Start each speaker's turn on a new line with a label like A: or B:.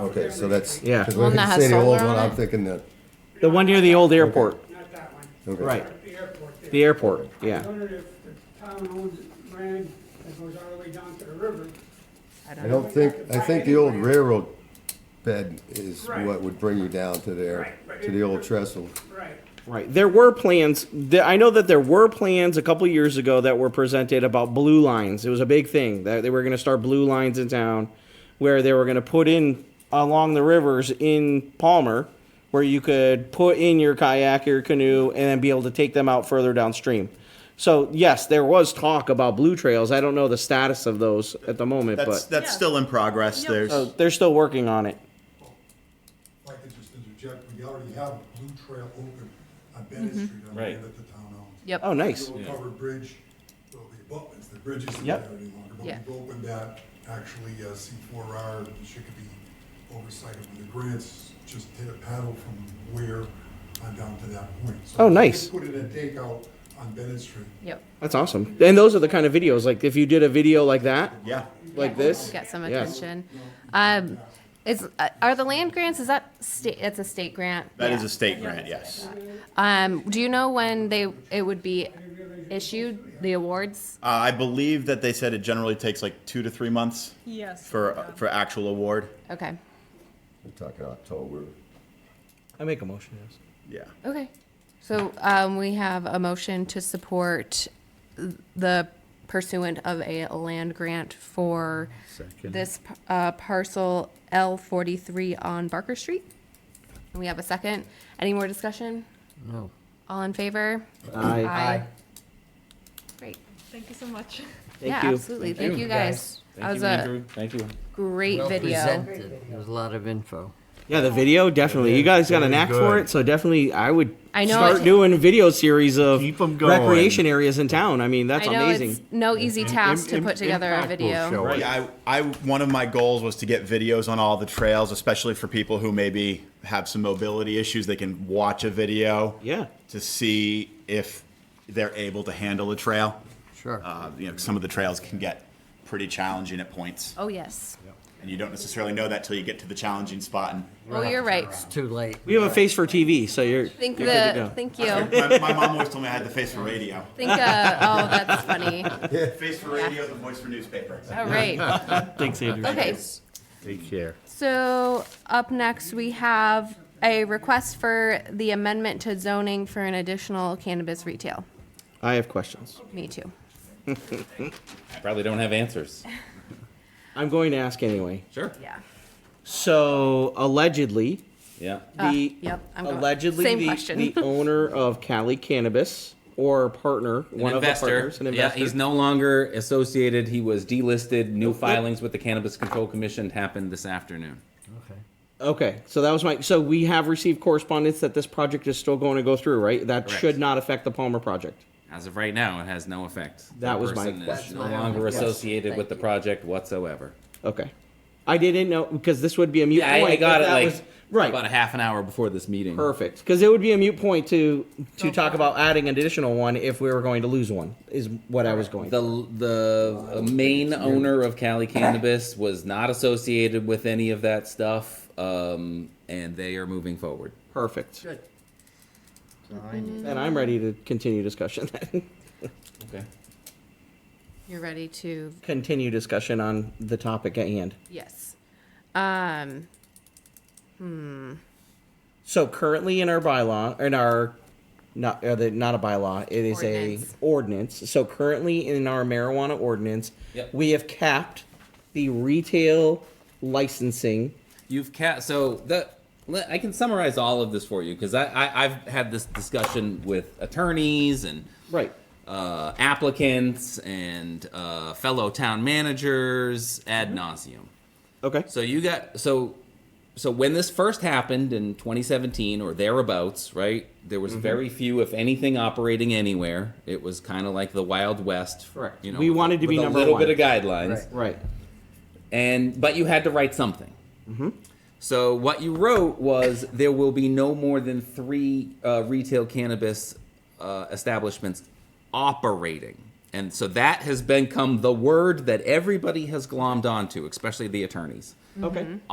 A: Okay, so that's.
B: Yeah.
A: 'cause
C: One
A: when
C: that
A: you
C: has
A: say the old
C: solar
A: one,
C: on
A: I'm
C: it?
A: thinking that,
B: The one near the old airport,
D: Not that one.
A: okay.
B: right?
D: The airport. there.
B: The airport,
D: I
B: yeah.
D: wondered if the town owns land that goes all the way down to the river.
A: I don't think, I think the old railroad bed is
D: Right.
A: what would bring you down to there,
D: Right, but
A: to
D: it-
A: the old trestle.
D: Right.
B: Right. There were plans. There, I know that there were plans a couple years ago that were presented about blue lines. It was a big thing that they were going to start blue lines in town, where they were going to put in along the rivers in Palmer, where you could put in your kayak, your canoe, and then be able to take them out further downstream. So yes, there was talk about blue trails. I don't know the status of those at the moment,
E: That's
B: but Oh.
E: that's still in progress.
F: Yeah.
E: There's
B: so they're still working on it.
G: If I could just interject, we already have a blue trail open on Bennett
B: Mm-hmm.
G: Street on the
H: Right.
G: end that the town owns.
F: Yep.
B: Oh, nice.
G: The old covered bridge, well, the abutments, the bridge isn't there
B: Yep.
G: any longer, but
F: Yeah.
G: we've opened that, actually, uh, C four R, and Chicopee oversight of the grants, just did a paddle from where on down to that point. So
B: Oh,
G: we did
B: nice.
G: Put in a takeout on Bennett Street.
F: Yep.
B: That's awesome. And those are the kind of videos like if you did a video like that,
E: yeah.
B: like this.
F: Get some
B: Yes.
F: attention. Um, is, uh, are the land grants, is that state, it's a state grant?
E: that is
F: Yeah.
E: a state grant. Yes. Uh,
F: Um, do you know when they, it would be issued, the awards?
E: Uh, I believe that they said it generally takes like two to three months
F: Yes.
E: for uh, for actual award.
F: Okay,
A: We're talking October.
B: I make a motion. Yes.
E: Yeah.
F: okay. So, um, we have a motion to support the pursuant of a land grant for this, uh, parcel L forty-three on Barker Street. We have a second. Any more discussion?
B: No.
F: All in favor?
B: Aye.
F: Great.
I: Thank you so much.
B: Thank
F: yeah,
B: you.
F: absolutely. Thank, you guys. that was a
H: Thank you.
F: great
J: well
F: video.
J: presented. There was a lot of info.
B: Yeah, the video definitely. You guys got a knack for it, so definitely I would
F: I know
B: start
F: it-
B: doing video series of
H: Keep 'em going.
B: recreation areas in town. I mean, that's
F: I know
B: amazing.
F: it's no easy task to
J: im-
F: put together a
J: impactful
F: video.
J: show.
E: Right. Yeah, I, I one of my goals was to get videos on all the trails, especially for people who maybe have some mobility issues. They can watch a video
B: Yeah.
E: to see if they're able to handle a trail.
J: Sure.
E: Uh, you know, some of the trails can get pretty challenging at points,
F: Oh yes.
E: and you don't necessarily know that till you get to the challenging spot. And
F: Oh, you're right.
J: It's too late.
B: We have a face for TV, so you're.
F: Think
B: you're good to go.
F: the thank you.
E: my, my mom always told me I had the face for radio,
F: Think uh, oh that's funny.
E: face for radio, the voice for newspaper.
F: All right.
B: Thanks, Andrew.
F: Okay.
H: Take care.
F: So up next we have a request for the amendment to zoning for an additional cannabis retail.
B: I have questions.
F: Me too.
H: Probably don't have answers.
B: I'm going to ask anyway.
H: Sure.
F: Yeah.
B: So allegedly,
H: Yeah.
B: the
F: Uh, yep, I'm going-
B: allegedly
F: same
B: the,
F: question.
B: the owner of Cali Cannabis or partner, one of the partners, an investor.
K: Yeah, he's no longer associated. He was delisted. New
B: that-
K: filings with the Cannabis Control Commission happened this afternoon.
J: Okay.
B: Okay, so that was my. So we have received correspondence that this project is still going to go through, right? That
K: Correct.
B: should not affect the Palmer project.
K: As of right now, it has no effect.
B: That
K: The
B: was my
K: person is
B: question.
K: No
J: That's my
K: longer
J: only question.
K: associated
J: Thank
K: with the
J: you.
K: project whatsoever.
B: Okay, I didn't know because this would be a mute
K: Yeah, I-
B: point.
K: I got
B: if
K: it
B: that
K: like
B: was- right.
K: about a half an hour before this meeting.
B: Perfect, because it would be a mute point to
F: Oh,
B: to talk about adding an additional one if we were going to lose one. Is what I was going.
K: The the main owner of Cali Cannabis was not associated with any of that stuff, um, and they are moving forward.
B: Perfect,
J: Good. Fine.
B: and I'm ready to continue discussion. Then.
K: Okay.
F: You're ready to
B: continue discussion on the topic at hand.
F: yes. Um
B: So currently in our bylaw, in our not uh, the, not a bylaw, it is
F: Ordinance.
B: a ordinance. So currently in our marijuana ordinance,
K: Yep.
B: we have capped the retail licensing.
K: You've ca- so the le- I can summarize all of this for you because I, I I've had this discussion with attorneys and
B: Right.
K: uh, applicants and uh, fellow town managers ad nauseum.
B: Okay.
K: So you got so so when this first happened in 2017 or thereabouts, right? There was very few, if anything, operating anywhere. It was kind of like the Wild West.
B: Correct.
K: You know,
B: We
K: with a-
B: wanted to be
K: with
B: number
K: a little
B: one.
K: bit of guidelines
J: Right.
B: Right.
K: and but you had to write something.
B: Mm-hmm.
K: So what you wrote was there will be no more than three uh, retail cannabis uh, establishments operating, and so that has become the word that everybody has glommed onto, especially the attorneys
B: Okay.